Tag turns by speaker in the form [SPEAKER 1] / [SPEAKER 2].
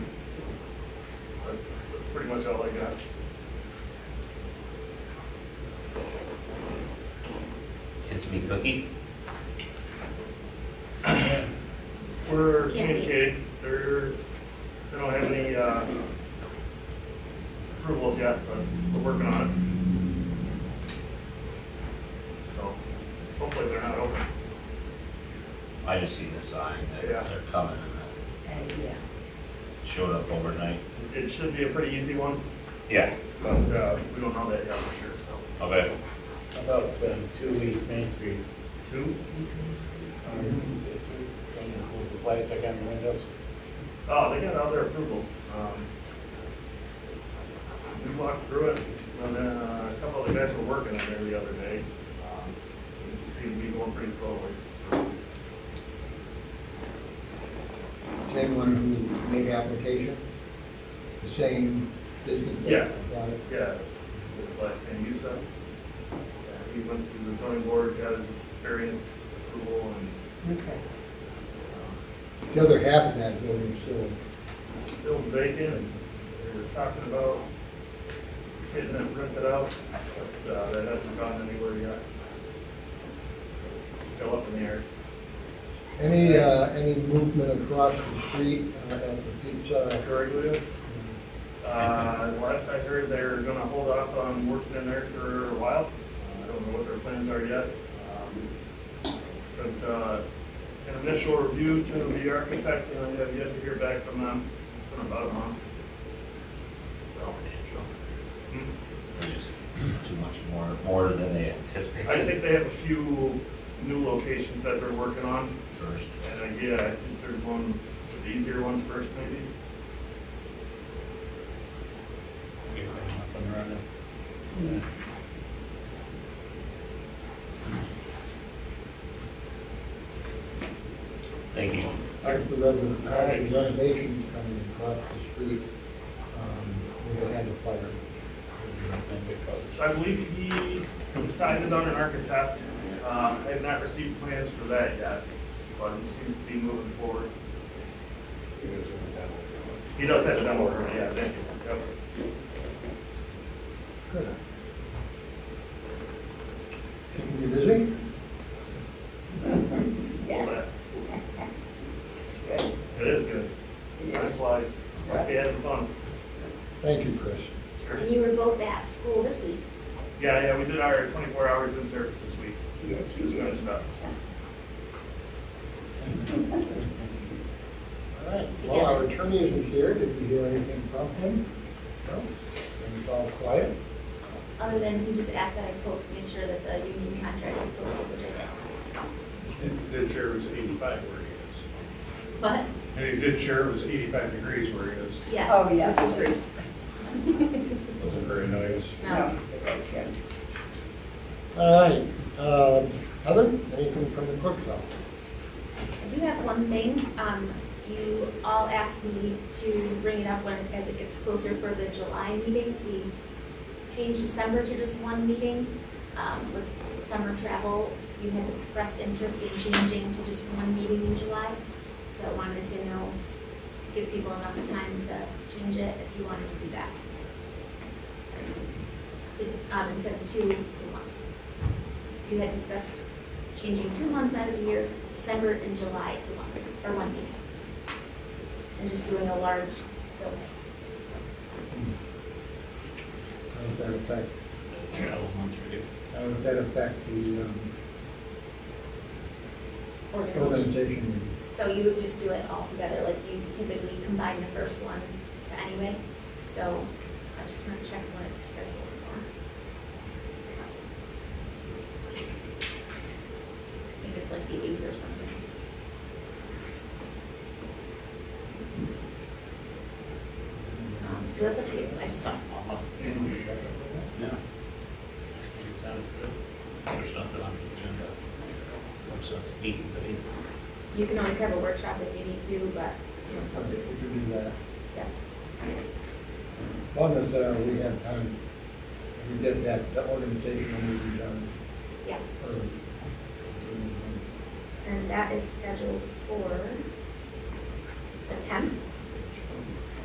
[SPEAKER 1] much all I got.
[SPEAKER 2] Kiss me cookie?
[SPEAKER 1] We're
[SPEAKER 3] Yeah.
[SPEAKER 1] communicating, they're, they don't have any, uh, approvals yet, but we're working on it. So, hopefully they're not open.
[SPEAKER 2] I just seen the sign that
[SPEAKER 1] Yeah.
[SPEAKER 2] they're coming and that
[SPEAKER 3] Uh, yeah.
[SPEAKER 2] showed up overnight.
[SPEAKER 1] It should be a pretty easy one,
[SPEAKER 2] Yeah.
[SPEAKER 1] but, uh, we don't know that yet for sure, so.
[SPEAKER 2] Okay.
[SPEAKER 4] How About um, two East Main Street.
[SPEAKER 1] Two?
[SPEAKER 4] Or is it two? Um, With the plastic on the windows.
[SPEAKER 1] Oh, they got other approvals. Um, We walked through it, and then uh, a couple of the guys were working on there the other day. Um, it Seemed to be going pretty slowly.
[SPEAKER 5] Is anyone who made application, the same business? that
[SPEAKER 1] Yes.
[SPEAKER 5] got it?
[SPEAKER 1] Yeah, his last name, Yusa. He went through the zoning board, got his variance approval, and
[SPEAKER 3] Okay.
[SPEAKER 1] um,
[SPEAKER 5] The other half of that building still,
[SPEAKER 1] still vacant. They were talking about getting it rented out, but uh, that hasn't gone anywhere yet. Still up in the air.
[SPEAKER 5] any, uh, any movement across the street uh, at the pizza?
[SPEAKER 1] Gregory. Uh, last I heard, they're gonna hold off on working in there for a while. Uh, I don't know what their plans are yet. Um, Sent, uh, an initial review to the architect, and I have yet to hear back from them. It's been about a month. So, hmm.
[SPEAKER 2] They're just too much more, more than they anticipated.
[SPEAKER 1] I think they have a few new locations that they're working on,
[SPEAKER 2] First.
[SPEAKER 1] and uh, yeah, I think there's one, the easier ones first maybe.
[SPEAKER 4] Get them up and running.
[SPEAKER 2] Thank you.
[SPEAKER 5] Part of the renovation- part of the renovations coming across the street, um, where they had the fire.
[SPEAKER 4] I think they call it-
[SPEAKER 1] So I believe he decided on an architect. Uh, I have not received plans for that yet, but he seems to be moving forward. He does have a demo permit, yeah, thank you. Yep.
[SPEAKER 5] Good. Keeping you busy?
[SPEAKER 3] Yes. It's good.
[SPEAKER 1] It is good. Nice slides. Must be having fun.
[SPEAKER 5] Thank you, Chris.
[SPEAKER 1] Sure.
[SPEAKER 3] And you were both at school this week.
[SPEAKER 1] Yeah, yeah, we did our twenty-four hours in service this week.
[SPEAKER 3] Yes,
[SPEAKER 1] Just finished up.
[SPEAKER 5] All right, well, our attorney isn't here, did you hear anything from him? No? Things all quiet?
[SPEAKER 3] Other than he just asked that I post, make sure that the union contract is posted, which I did.
[SPEAKER 6] The chair was 85 where he
[SPEAKER 3] But,
[SPEAKER 6] is. And he did share it was 85 degrees where he is.
[SPEAKER 3] yes.
[SPEAKER 7] Oh, yeah.
[SPEAKER 3] Which was great.
[SPEAKER 6] Wasn't very nice.
[SPEAKER 3] No.
[SPEAKER 7] No, but that's good.
[SPEAKER 5] All right, um, Heather, anything from the clerk's office?
[SPEAKER 3] I do have one thing. Um, you all asked me to bring it up when, as it gets closer for the July meeting. We changed December to just one meeting. Um, with summer travel, you had expressed interest in changing to just one meeting in July. So I wanted to know, give people enough time to change it if you wanted to do that. To, um, instead of two to one. You had discussed changing two months out of the year, December and July to one, or one meeting. And just doing a large building.
[SPEAKER 5] How would that affect,
[SPEAKER 4] Travel month or two.
[SPEAKER 5] how would that affect the um,
[SPEAKER 3] Organization.
[SPEAKER 5] organization?
[SPEAKER 3] So you would just do it all together, like you typically combine the first one to anyway. So I just want to check when it's scheduled for. I think it's like the eighth or something. Um, So that's up to you, I just saw.
[SPEAKER 4] No. It sounds good. There's nothing on the agenda. No sense of meeting, but it-
[SPEAKER 3] You can always have a workshop if you need to, but, you know, it's up to
[SPEAKER 5] We
[SPEAKER 3] you.
[SPEAKER 5] could do that,
[SPEAKER 3] Yeah.
[SPEAKER 5] as long as uh, we have time, we get that, the organizational meeting done
[SPEAKER 3] Yeah,
[SPEAKER 5] early.
[SPEAKER 3] and that is scheduled for the tenth